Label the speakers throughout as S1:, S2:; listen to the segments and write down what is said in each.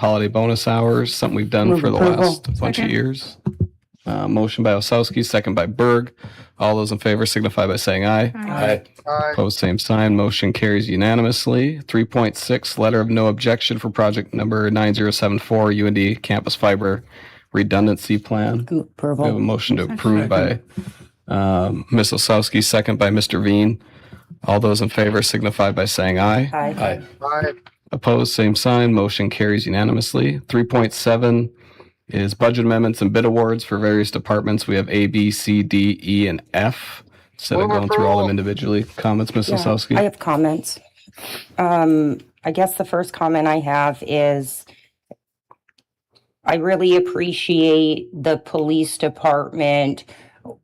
S1: holiday bonus hours, something we've done
S2: Move
S1: for the
S2: approval.
S1: last bunch of
S3: Second.
S1: years. Uh, motion by Osowski, second by Berg. All those in favor signify by saying aye.
S3: Aye.
S2: Aye.
S1: Opposed, same sign. Motion carries unanimously. 3.6, letter of no objection for project number 9074 UND Campus Fiber Redundancy Plan.
S2: Go-
S1: We have a
S2: Approval.
S1: motion to approve by um, Ms. Osowski, second by Mr. Veen. All those in favor signify by saying aye.
S2: Aye.
S4: Aye.
S1: Opposed, same sign. Motion carries unanimously. 3.7 is budget amendments and bid awards for various departments. We have A, B, C, D, E, and F. Instead of
S2: Move
S1: going through all of
S2: approval.
S1: them individually, comments, Ms.
S5: Yeah,
S1: Osowski?
S5: I have comments. Um, I guess the first comment I have is I really appreciate the police department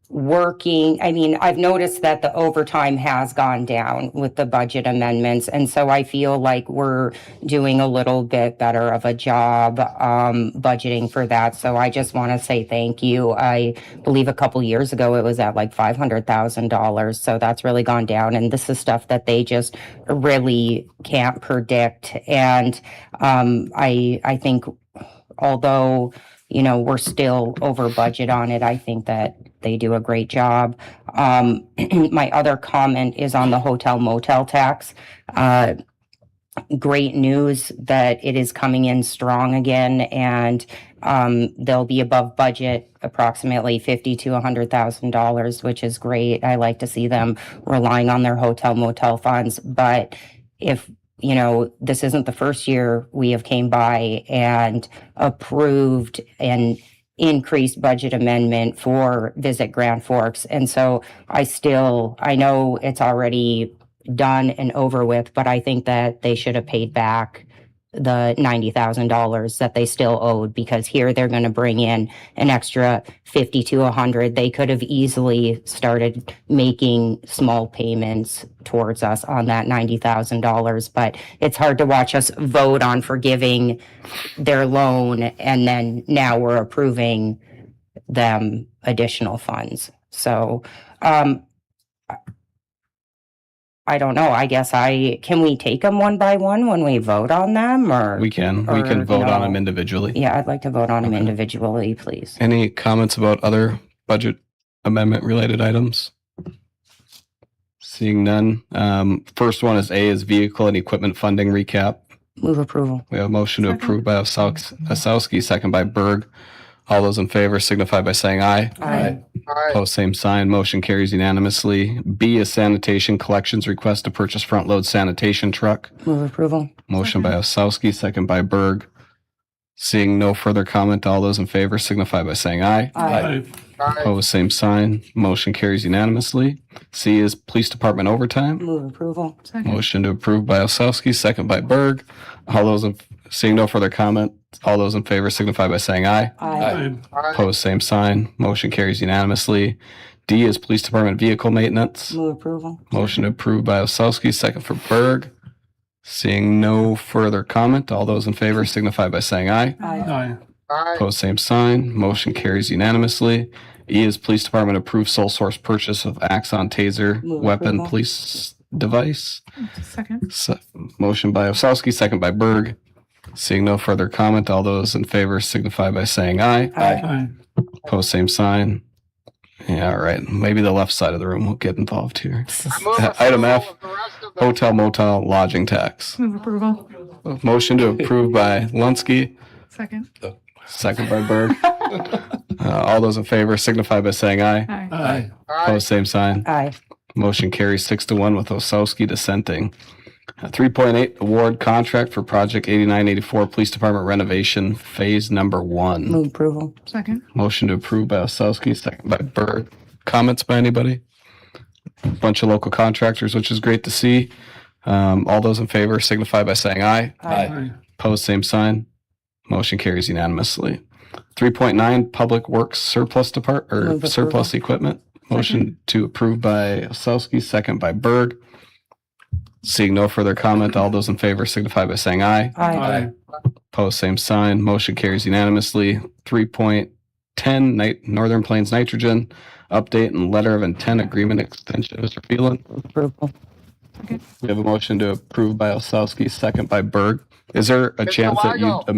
S5: working. I mean, I've noticed that the overtime has gone down with the budget amendments. And so I feel like we're doing a little bit better of a job um, budgeting for that. So I just want to say thank you. I believe a couple years ago it was at like $500,000. So that's really gone down. And this is stuff that they just really can't predict. And um, I, I think although, you know, we're still over budget on it, I think that they do a great job. Um, my other comment is on the hotel motel tax. Uh, great news that it is coming in strong again and um, they'll be above budget approximately fifty to a hundred thousand dollars, which is great. I like to see them relying on their hotel motel funds, but if you know this isn't the first year we have came by and approved an increased budget amendment for visit grand forks and so i still i know it's already done and over with, but I think that they should have paid back the ninety thousand dollars that they still owed because here they're going to bring in an extra fifty to a hundred. They could have easily started making small payments towards us on that ninety thousand dollars, but it's hard to watch us vote on forgiving their loan and then now we're approving them additional funds. So, um, I don't know. I guess I can we take them one by one when we vote on them or
S1: We can, we
S5: or
S1: can vote on
S5: no.
S1: them individually.
S5: yeah, I'd like to vote on them
S1: Okay.
S5: individually, please.
S1: Any comments about other budget amendment related items? Seeing none. Um, first one is A is vehicle and equipment funding recap.
S5: Move approval.
S1: We have a motion to
S3: Second.
S1: approve by Osauk- Osowski, second by Berg. All those in favor signify by saying aye.
S4: Aye.
S1: Opposed, same sign. Motion carries unanimously. B is sanitation collections request to purchase front load sanitation truck.
S5: Move approval.
S1: Motion by Osowski, second by Berg. Seeing no further comment, all those in favor signify by saying aye.
S4: Aye.
S1: Opposed, same sign. Motion carries unanimously. C is Police Department overtime.
S5: Move approval.
S3: Second.
S1: Motion to approve by Osowski, second by Berg. All those, in- seeing no further comment, all those in favor signify by saying aye.
S5: Aye.
S1: Opposed, same sign. Motion carries unanimously. D is Police Department vehicle maintenance.
S5: Move approval.
S1: Motion approved by Osowski, second for Berg. Seeing no further comment, all those in favor signify by saying aye.
S5: Aye.
S4: Aye.
S1: Opposed, same sign. Motion carries unanimously. E is Police Department approved sole source purchase of Axon Taser
S5: Move
S1: weapon
S5: approval.
S1: police device.
S3: Second.
S1: Se- Motion by Osowski, second by Berg. Seeing no further comment, all those in favor signify by saying aye.
S5: Aye.
S4: Aye.
S1: Post same sign. Yeah, all right. Maybe the left side of the room will get involved here. Item F, hotel motel lodging tax.
S3: Move approval.
S1: Motion to approve by Lunskey,
S3: Second.
S1: second by Berg. Uh, all those in favor signify by saying aye.
S3: Aye.
S4: Aye.
S1: Post same sign.
S5: Aye.
S1: Motion carries six to one with Osowski dissenting. Uh, 3.8 award contract for project 8984 Police Department renovation phase number one.
S5: Move approval.
S3: Second.
S1: Motion to approve by Osowski, second by Berg. Comments by anybody? Bunch of local contractors, which is great to see. Um, all those in favor signify by saying aye.
S4: Aye.
S1: Opposed, same sign. Motion carries unanimously. 3.9 Public Works Surplus Depart,
S5: Move
S1: or
S5: approval.
S1: Surplus Equipment. Motion to approve by Osowski, second by Berg. Seeing no further comment, all those in favor signify by saying aye.
S5: Aye.
S1: Opposed, same sign. Motion carries unanimously. 3.10 Ni- Northern Plains Nitrogen Update and Letter of Intent Agreement Extension. Mr. Phelan,
S5: Approval.
S1: we have a motion to approve by Osowski, second by Berg. Is there a chance that you
S2: Weigel.